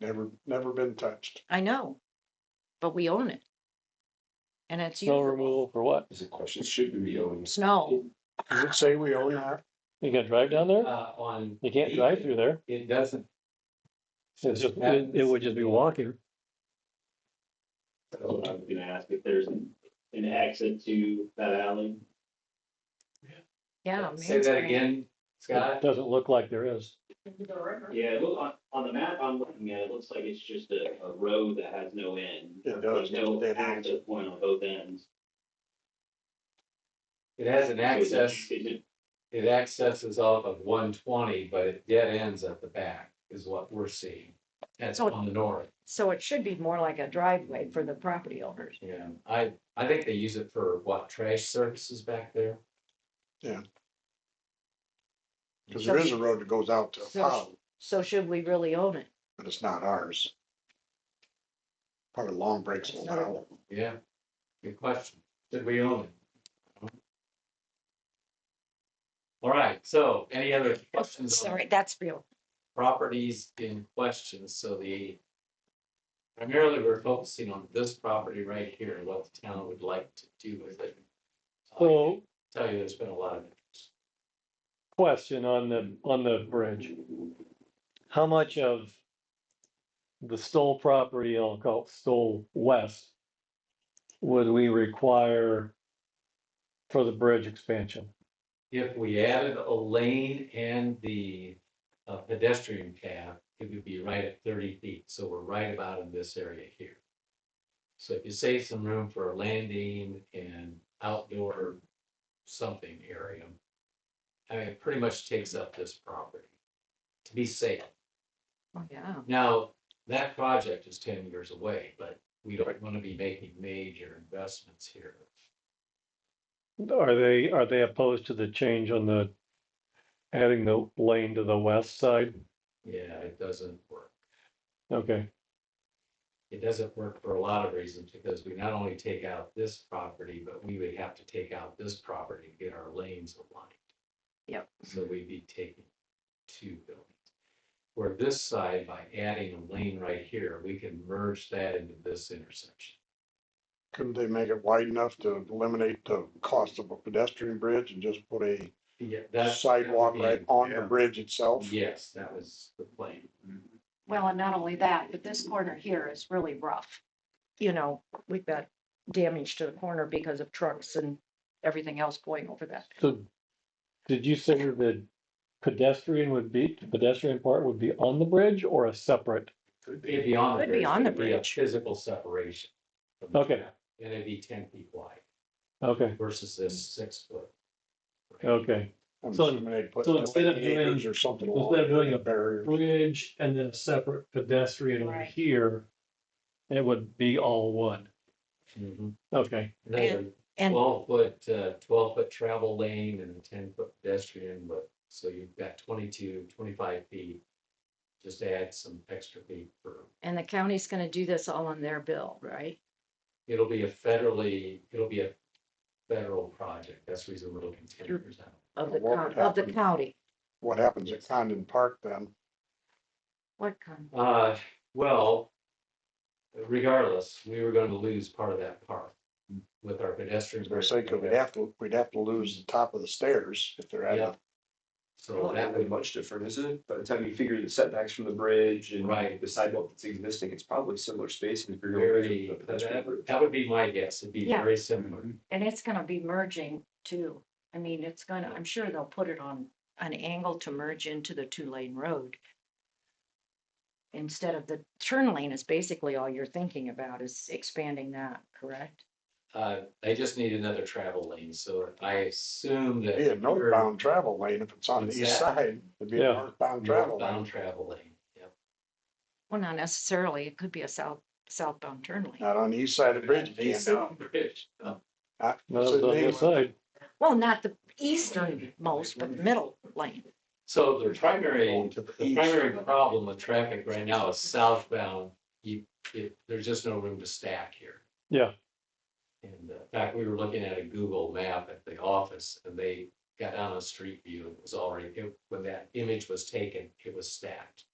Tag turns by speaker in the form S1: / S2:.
S1: Never, never been touched.
S2: I know, but we own it. And it's
S3: Snow
S2: usable.
S3: removal for what?
S4: Is a question, should we be owning?
S2: Snow,
S1: Does it say we own that?
S3: You can drive down there?
S4: Uh, on.
S3: You can't drive through there.
S4: It doesn't.
S3: It's just, it, it would just be walking.
S5: I was gonna ask if there's an an exit to that alley.
S2: yeah.
S4: Say
S2: Main
S4: that
S2: Street.
S4: again,
S3: It
S4: Scott.
S3: doesn't look like there is.
S5: Yeah, it look, on, on the map I'm looking at, it looks like it's just a, a road that has no end.
S1: It does.
S5: There's no
S1: Dead end.
S5: access point on both ends.
S4: It has an
S5: So is it-
S4: access,
S5: Is it,
S4: it accesses off of one twenty, but it dead ends at the back is what we're seeing. That's
S2: So-
S4: on the north,
S2: So it should be more like a driveway for the property owners.
S4: yeah. I, I think they use it for what, trash services back there?
S1: Cause there is a road that goes out to a pond,
S2: So should we really own it?
S1: but it's not ours. Part of Long Breaks will allow it.
S4: Yeah. Good question. Did we own it? All right, so any other questions on
S2: Sorry, that's real.
S4: properties in question, so the. Primarily, we're focusing on this property right here, and what the town would like to do with it. Oh, Uh,
S3: So
S4: Tell you, there's been a lot of,
S3: question on the, on the bridge. How much of the Stoll property, I'll call it Stoll West, would we require for the bridge expansion?
S4: if we added a lane and the uh, pedestrian path, it would be right at thirty feet, so we're right about in this area here. So if you save some room for a landing and outdoor something area. I mean, it pretty much takes up this property to be safe.
S2: Oh, Yeah.
S4: Now, that project is ten years away, but we don't want to be making major investments here.
S3: Are they, are they opposed to the change on the, adding the lane to the west side?
S4: Yeah, it doesn't work.
S3: Okay,
S4: It doesn't work for a lot of reasons because we not only take out this property, but we would have to take out this property to get our lanes aligned.
S2: Yep.
S4: So we'd be taking two buildings. Where this side, by adding a lane right here, we can merge that into this intersection.
S1: Couldn't they make it wide enough to eliminate the cost of a pedestrian bridge and just put a
S4: Yeah, that's.
S1: sidewalk right on the bridge itself?
S4: Yes, that was the plan.
S2: Well, and not only that, but this corner here is really rough. You know, we've got damage to the corner because of trucks and everything else going over that.
S3: so did you say the pedestrian would be, the pedestrian part would be on the bridge or a separate?
S4: It'd be on the
S2: Could
S4: bridge.
S2: be on the
S4: It'd a
S2: bridge.
S4: Physical separation. from the
S3: Okay.
S4: ground, And it'd be ten feet wide
S3: Okay,
S4: versus this six foot.
S3: okay.
S1: And
S3: So-
S1: eliminate put
S3: so instead of doing-
S1: acres Or something.
S3: instead
S1: along
S3: of doing a-
S1: the Barrier.
S3: Bridge and then a separate pedestrian over
S2: Right.
S3: here. It would be all one.
S4: Mhm.
S3: Okay,
S4: Another
S2: And
S4: twelve foot, uh, twelve foot travel lane and a ten foot pedestrian, but, so you've got 22, 25 feet. Just add some extra feet for,
S2: And the county's gonna do this all on their bill, right?
S4: it'll be a federally, it'll be a federal project. That's the reason we're looking ten years out.
S2: Of the,
S1: What
S2: coun-
S1: would
S2: of the
S1: happen?
S2: county.
S1: What happens at Condon Park then?
S2: What kind?
S4: Uh, well, regardless, we were going to lose part of that park with our pedestrian.
S1: As I say, 'cause we'd have to, we'd have to lose the top of the stairs if they're at
S4: Yeah.
S1: it.
S4: So that
S6: that
S4: would,
S6: would be much different, isn't it? By the time you figure the setbacks from the bridge and
S4: Right.
S6: the sidewalk that's existing, it's probably similar spacing if you're going
S4: very,
S6: to
S4: that,
S6: pedestrian Mm-hmm. bridge.
S4: that would be my guess. It'd be
S2: Yeah.
S4: very similar.
S2: And it's gonna be merging too. I mean, it's gonna, I'm sure they'll put it on an angle to merge into the two lane road. Instead of the turn lane is basically all you're thinking about is expanding that, correct?
S4: Uh, they just need another travel lane, so I assume that.
S1: Be a northbound travel lane if it's on the east
S4: Exactly.
S1: side, it'd be a
S3: Yeah.
S1: northbound travel
S4: Northbound
S1: lane.
S4: travel lane, yep.
S2: Well, not necessarily. It could be a south, southbound turn lane.
S1: Not on the east side of the bridge. you can't.
S4: Eastbound Bridge. Oh,
S1: Not-
S3: now
S1: so
S3: that's the
S1: they-
S3: other side.
S2: Well, not the easternmost, but middle lane.
S4: So the primary,
S1: Going to the
S4: the
S1: east.
S4: primary problem with traffic right now is southbound. You, it, there's just no room to stack here.
S3: Yeah.
S4: And uh, in fact, we were looking at a Google map at the office and they got on a street view and it was already, it- when that image was taken, it was stacked.